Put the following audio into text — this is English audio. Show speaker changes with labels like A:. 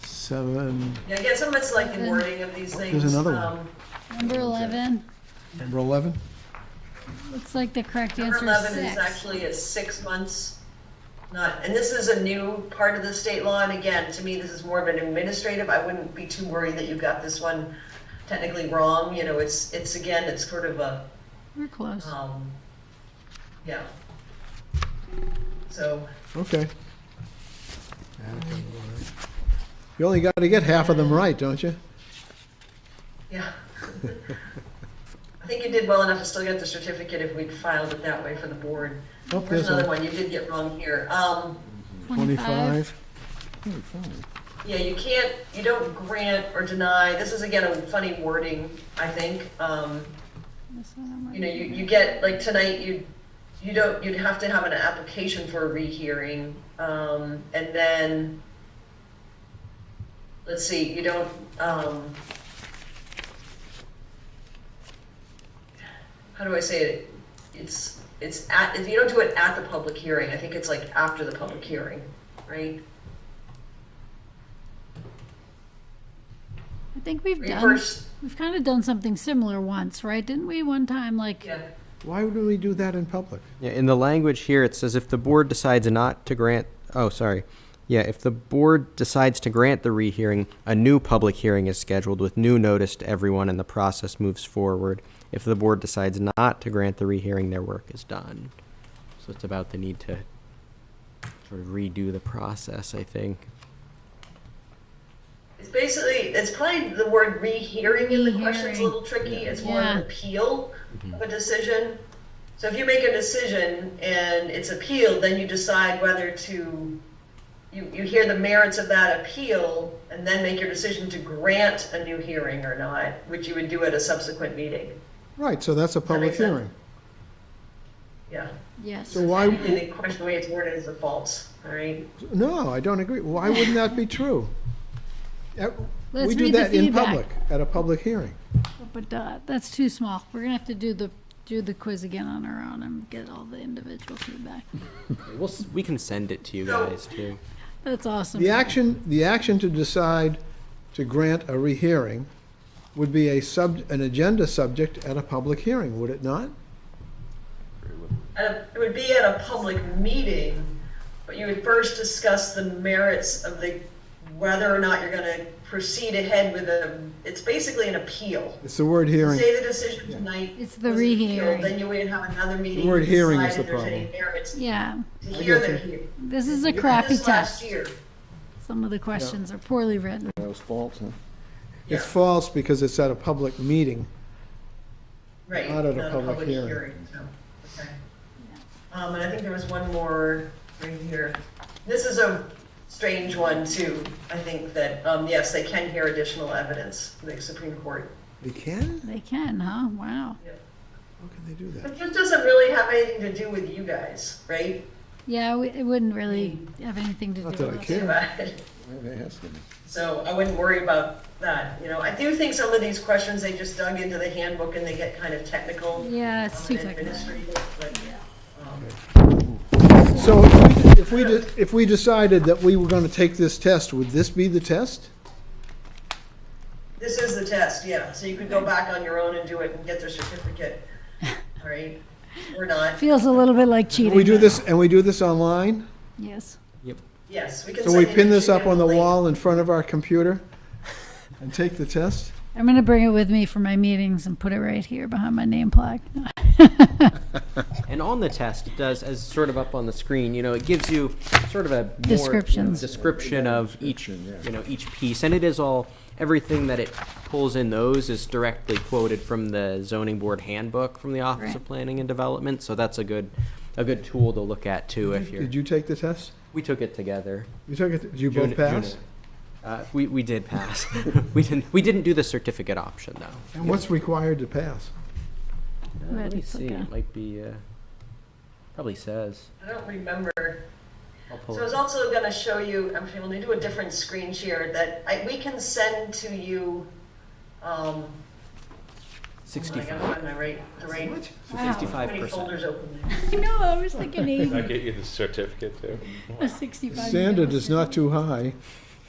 A: seven,
B: Yeah, I get so much like in wording of these things.
A: Oh, another one.
B: um,
C: Number 11,
A: number 11?
C: looks like the correct
B: Number
C: answer is
B: eleven is
C: six.
B: actually at six months, not, and this is a new part of the state law, and again, to me, this is more of an administrative, I wouldn't be too worried that you got this one technically wrong, you know, it's, it's again, it's sort of a,
C: We're close.
B: um, yeah. So,
A: Okay. You only got to get half of them right, don't you?
B: yeah. I think you did well enough to still get the certificate if we'd filed it that way for the board.
A: Oh,
B: There's
A: there's
B: another
A: a
B: one you did get wrong here, um.
A: 25. 25.
B: Yeah, you can't, you don't grant or deny, this is again a funny wording, I think. Um,
C: This one I'm
B: you know,
C: right.
B: you, you get, like tonight, you, you don't, you'd have to have an application for a rehearing. Um, and then, let's see, you don't, um, how do I say it? It's, it's at, if you don't do it at the public hearing, I think it's like after the public hearing, right?
C: I think we've
B: Or you
C: done,
B: first,
C: we've kind of done something similar once, right? Didn't we one time, like,
B: yeah.
A: Why would we do that in public?
D: Yeah, in the language here, it says if the board decides not to grant, oh, sorry. Yeah, if the board decides to grant the rehearing, a new public hearing is scheduled with new notice to everyone and the process moves forward. If the board decides not to grant the rehearing, their work is done. So it's about the need to sort of redo the process, I think.
B: It's basically, it's probably the word rehearing in the question's a
C: Rehearing.
B: little tricky. It's more of
C: Yeah.
B: an appeal of a decision. So if you make a decision and it's appealed, then you decide whether to, you, you hear the merits of that appeal and then make your decision to grant a new hearing or not, which you would do at a subsequent meeting.
A: Right, so that's a public
B: makes sense.
A: hearing.
B: Yeah.
C: yes,
A: So why,
C: Mm-hmm.
B: And the question, the way it's worded is a false, all right?
A: no, I don't agree. Why wouldn't that be true? Uh,
C: Let's
A: We do
C: read the
A: that in
C: feedback.
A: public, at a public hearing.
C: but uh, that's too small. We're gonna have to do the, do the quiz again on our own and get all the individual feedback.
D: We'll, s- we can send it to you guys too.
C: That's awesome.
A: The action, the action to decide to grant a rehearing would be a sub, an agenda subject at a public hearing, would it not?
B: At a- It would be at a public meeting, but you would first discuss the merits of the, whether or not you're gonna proceed ahead with a, it's basically an appeal.
A: It's the word hearing.
B: Say the decision tonight.
C: It's the
B: was appealed,
C: rehearing.
B: Then you would have another meeting.
A: The word
B: to
A: hearing
B: decide
A: is the
B: if there's
A: problem.
B: any merits.
C: Yeah,
B: To hear
A: get
B: the
A: you.
B: hear- you
C: this is a
B: had
C: crappy
B: this last
C: test.
B: year.
C: Some of the questions are poorly written.
A: That was false, huh?
B: Yeah.
A: It's false because it's at a public meeting.
B: Right.
A: Not at a public hearing.
B: so, okay. Um, and I think there was one more right here. This is a strange one too. I think that, um, yes, they can hear additional evidence, the Supreme Court.
A: They can?
C: They can, huh? Wow.
A: How can they do that?
B: But this doesn't really have anything to do with you guys, right?
C: Yeah, we- it wouldn't really
B: Mm.
C: have anything to do
A: Not
C: with
A: that I
C: us.
A: care.
B: So I wouldn't worry about that, you know. I do think some of these questions, they just dug into the handbook and they get kind of technical.
C: Yeah, it's too
B: um, and
C: technical.
B: administrative, but, um,
A: So if we, de- if we decided that we were going to take this test, would this be the test?
B: This is the test, yeah. So you could go back on your own and do it and get their certificate, all right? Or not.
C: Feels a little bit like cheating.
A: And we do
C: but-
A: this, and we do this online?
C: Yes.
B: Yes, we can.
A: So we
B: send you
A: pin
B: the
A: this up on the
B: link.
A: wall in front of our computer and take the test?
C: I'm gonna bring it with me for my meetings and put it right here behind my name plaque.
D: And on the test, it does, as sort of up on the screen, you know, it gives you sort of a more
C: Descriptions.
D: description of each, you know, each piece. And it is all, everything that it pulls in those is directly quoted from the zoning board handbook from the Office of
C: Right.
D: Planning and Development. So that's a good, a good tool to look at too if you're,
A: Did you take the test?
D: we took it together.
A: You took it, did you
D: June-
A: both pass?
D: June- Uh, we, we did pass. We didn't, we didn't do the certificate option though.
A: And what's required to pass?
D: Uh,
C: Right,
D: Let me
C: it's
D: see,
C: okay.
D: it might be, uh, probably says.
B: I don't remember.
D: I'll pull
B: So I
D: it
B: was also gonna show you, I'm going to do a different screen share that I, we can send to you, um, oh my God,
D: 65
B: I'm on my right, the right, how many
D: 65%.
B: folders open there?
C: I know, I was thinking
E: I get you the certificate too.
C: eighty, sixty-five.
A: Standard is not too high.